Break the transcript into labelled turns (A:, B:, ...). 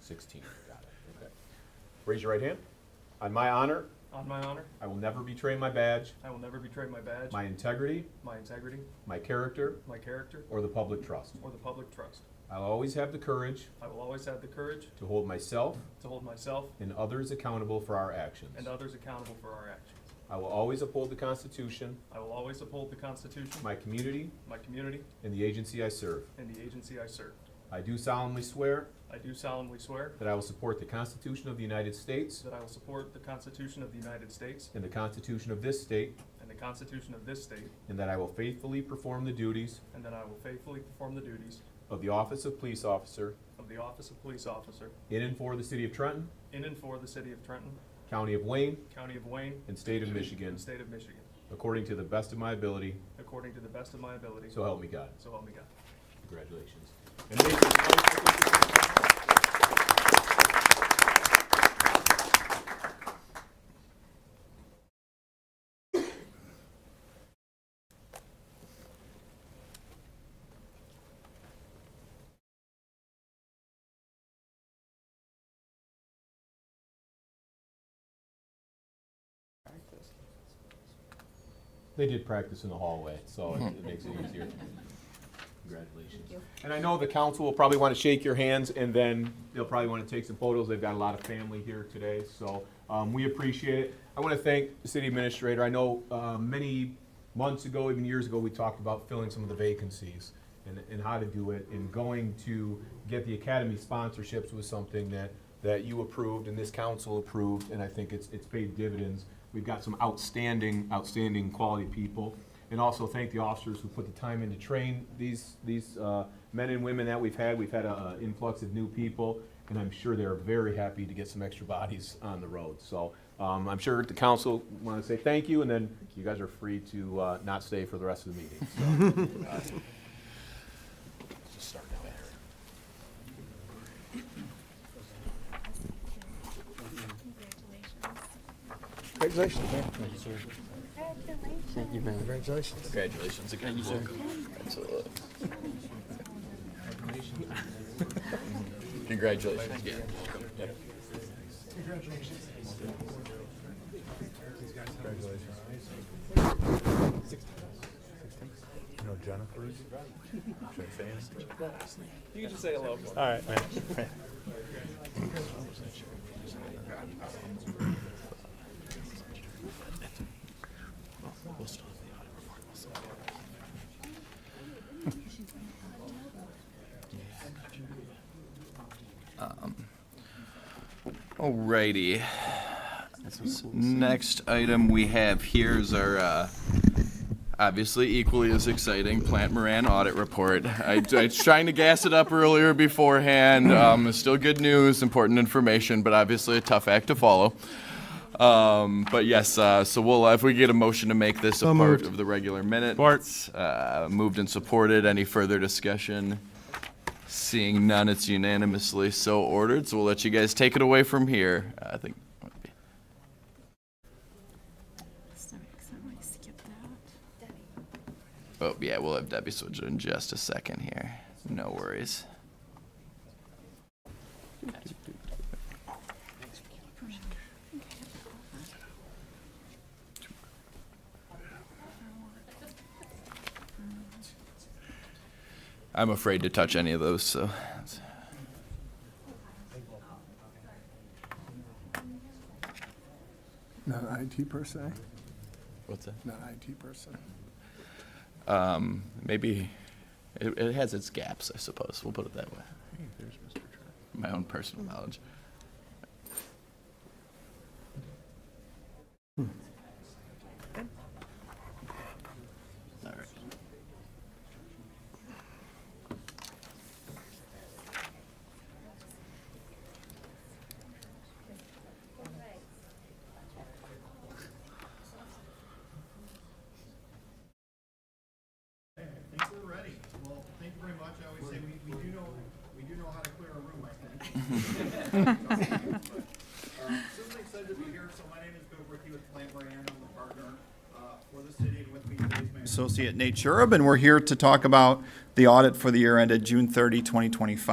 A: 16, got it, okay. Raise your right hand. On my honor,
B: On my honor,
A: I will never betray my badge,
B: I will never betray my badge,
A: my integrity,
B: my integrity,
A: my character,
B: my character,
A: or the public trust.
B: or the public trust.
A: I'll always have the courage
B: I will always have the courage
A: to hold myself
B: to hold myself
A: and others accountable for our actions.
B: and uh, others accountable for our actions.
A: I will always uphold the Constitution,
B: I will always uphold the Constitution,
A: my community,
B: my community,
A: and the agency I serve.
B: and the agency I serve.
A: I do solemnly swear
B: I do solemnly swear
A: that I will support the Constitution of the United States
B: that I will support the Constitution of the United States
A: and the Constitution of this state,
B: and the Constitution of this state,
A: and that I will faithfully perform the duties
B: and that I will faithfully perform the duties
A: of the office of police officer
B: of the office of police officer
A: in and for the city of Trenton,
B: in and for the city of Trenton,
A: county of Wayne,
B: county of Wayne,
A: and state of Michigan,
B: and state of Michigan,
A: according to the best of my ability,
B: according to the best of my ability.
A: so help me God.
B: So help me God.
A: Congratulations. And make some noise. They did practice in the hallway, so it- it makes it easier. Congratulations. And I know the council will probably want to shake your hands, and then they'll probably want to take some photos. They've got a lot of family here today, so um, we appreciate it. I want to thank the city administrator. I know uh, many months ago, even years ago, we talked about filling some of the vacancies and, and how to do it, and going to get the academy sponsorships was something that, that you approved and this council approved, and I think it's, it's paid dividends. We've got some outstanding, outstanding quality people and also thank the officers who put the time in to train these, these uh, men and women that we've had. We've had an influx of new people, and I'm sure they're very happy to get some extra bodies on the road. So um, I'm sure the council want to say thank you, and then you guys are free to uh, not stay for the rest of the meeting. So, uh, Just start down there.
C: Congratulations.
D: Congratulations, man.
C: Congratulations.
D: Thank you, man. Congratulations.
E: Congratulations again. Congratulations again.
D: You know Jennifer? Should I say it?
B: You can just say hello.
D: All right, man.
E: Alrighty. Next item we have here is our, uh, obviously equally as exciting Plant Moran audit report. I, I was trying to gas it up earlier beforehand. Um, it's still good news, important information, but obviously a tough act to follow. Um, but yes, uh, so we'll, if we get a motion to make this a
F: So
E: part
F: moved.
E: of the regular minute.
F: Support.
E: Uh, moved and supported. Any further discussion? Seeing none, it's unanimously so ordered, so we'll let you guys take it away from here. Uh, I think.
C: Sorry, 'cause I might skip that.
E: Oh, yeah, we'll have Debbie switch in just a second here. No worries. I'm afraid to touch any of those, so.
D: Not an IT person,
E: What's that?
D: not an IT person.
E: Um, maybe it, it has its gaps, I suppose. We'll put it that way. My own personal knowledge. All right.
G: I think we're ready. Well, thank you very much. I always say we, we do know, we do know how to clear a room, I think. Um, Certainly excited to be here. So my name is Bill Ricky with Plant Moran. I'm the partner uh, for the city and with me today is my associate Nate Shurub, and we're here to talk about the audit for the year ended June 30, 2025.